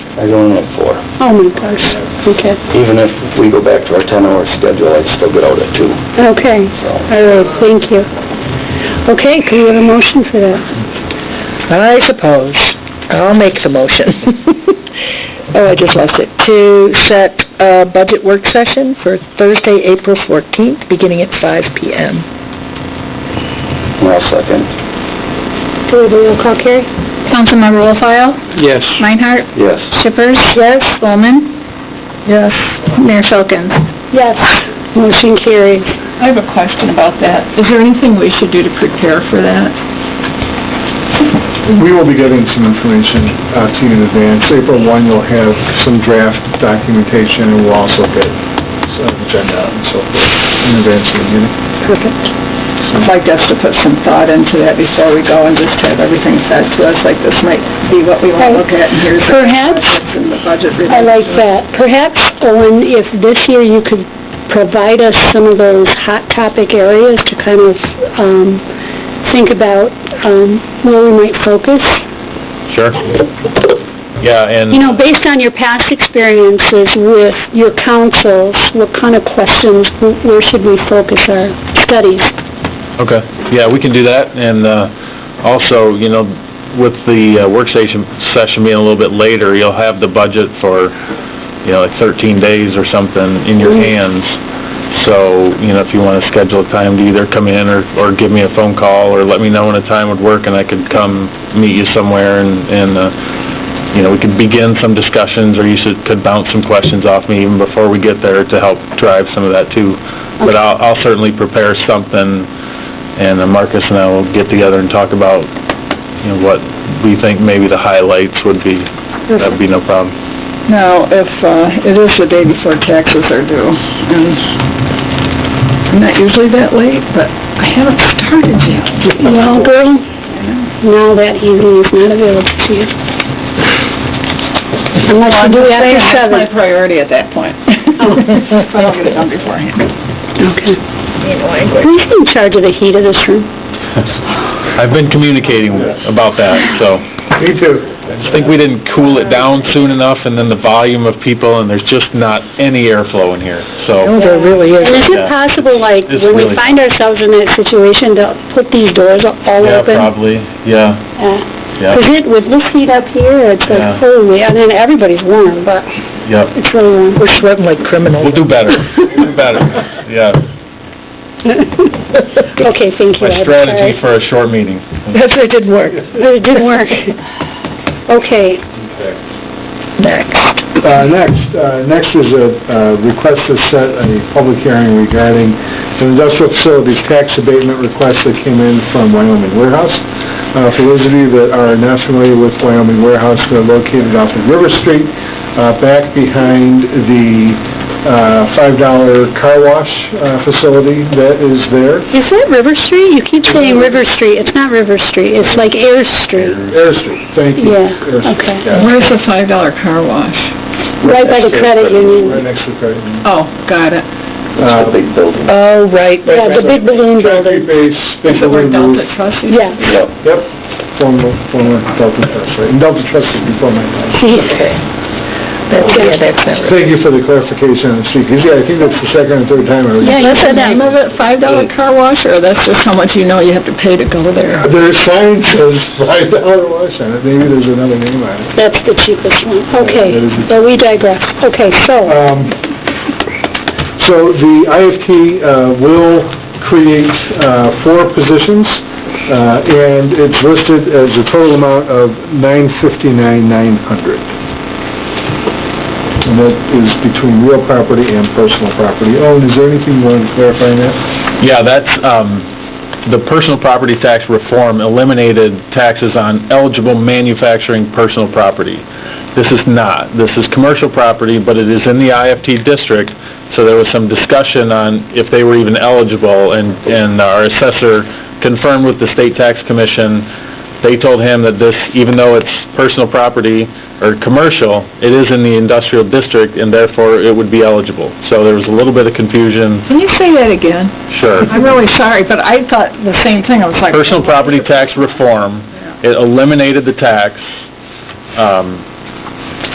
I go in at four. Oh my gosh, okay, Even if we go back to our ten-hour schedule, I'd still get out at two. okay, all right, thank you. Okay, can you have a motion for that? I suppose. I'll make the motion. Oh, I just lost it. To set a budget work session for Thursday, April 14th, beginning at 5 PM. And I'll second. Do the roll call, Carrie? Councilmember Wolfile? Yes. Meinhardt? Yes. Shippers? Yes. Spelman? Yes. Mayor Filkins? Yes. Motion carried. I have a question about that. Is there anything we should do to prepare for that? We will be getting some information uh, to you in advance. April 1, you'll have some draft documentation, and we'll also get some agenda and so forth in advance of the meeting. Perfect. I'd like us to put some thought into that before we go and just have everything fed to us, like this might be what we want to look at, and here's the Perhaps, in the budget review. I like that, perhaps, Owen, if this year you could provide us some of those hot topic areas to kind of, um, think about, um, where we might focus. Sure. Yeah, and... You know, based on your past experiences with your councils, what kind of questions, wh- where should we focus our studies? Okay, yeah, we can do that, and uh, also, you know, with the uh, work session session being a little bit later, you'll have the budget for, you know, like 13 days or something in your hands, so, you know, if you want to schedule a time to either come in or, or give me a phone call, or let me know when a time would work, and I could come meet you somewhere, and, and, uh, you know, we could begin some discussions, or you should, could bounce some questions off me even before we get there to help drive some of that too. But I'll, I'll certainly prepare something, and uh, Marcus and I will get together and talk about, you know, what we think maybe the highlights would be. That'd be no problem. Now, if, uh, it is the day before taxes are due, and I'm not usually that late, but I haven't started yet. Well, girl, now that evening is not available to you. Unless you do it after my seven. priority at that point. I'll get it done beforehand. Okay. Who's in charge of the heat of this room? I've been communicating about that, so. Me too. I think we didn't cool it down soon enough, and then the volume of people, and there's just not any airflow in here, so. Oh, there really And is it Yeah. possible, like, It's when we really- find ourselves in that situation, to put these doors all Yeah, open? probably, yeah, Because yeah, it, with this heat up here, it's Yeah. like, holy, and then everybody's warm, but yeah. it's really warm. We're sweating like criminals. We'll do better, We'll do better, yeah. Okay, thank you. My I'm strategy sorry. for a short meeting. That's, it didn't work. But it did work. Okay, Next. Uh, Next, uh, next is a uh, request to set a public hearing regarding an industrial facilities tax abatement request that came in from Wyoming Warehouse. Uh, For those of you that are not familiar with Wyoming Warehouse, they're located off of River Street, uh, back behind the uh, $5 car wash uh, facility that is there. is that River Street? You keep saying River Street, it's not River Street, it's like Air Street, Air Street, thank you. Yeah, Air Street, okay. yeah. Where's the $5 car wash? right by the credit Right union. next to the credit union. Oh, got it. It's the big building. Oh, right, Yeah, the big balloon Factory building, base, big blue roof. Trustee? yeah. Yep. Yep, former, former Delta Trust, right, and Delta Trust is before my time. Yeah, that's it. Thank you for the clarification on the street, 'cause, yeah, I think that's the second or third time I was... Yeah, you That's the said that. name of it, five dollar car wash, or that's just how much you know you have to pay to go there? Their sign says five dollar wash on it, maybe there's another name on it. That's the cheapest one. Okay, That is the- but we digress. Okay, so, Um, So the IFT uh, will create uh, four positions, uh, and it's listed as a total amount of nine fifty-nine, nine hundred. And that is between real property and personal property. Owen, is there anything you want to clarify on that? Yeah, that's, um, the personal property tax reform eliminated taxes on eligible manufacturing personal property. This is not. This is commercial property, but it is in the IFT district, so there was some discussion on if they were even eligible, and, and our assessor confirmed with the state tax commission, they told him that this, even though it's personal property or commercial, it is in the industrial district, and therefore it would be eligible. So there was a little bit of confusion, Can you say that again? sure. I'm really sorry, but I thought the same thing, I was like... personal property tax reform, it eliminated the tax, um,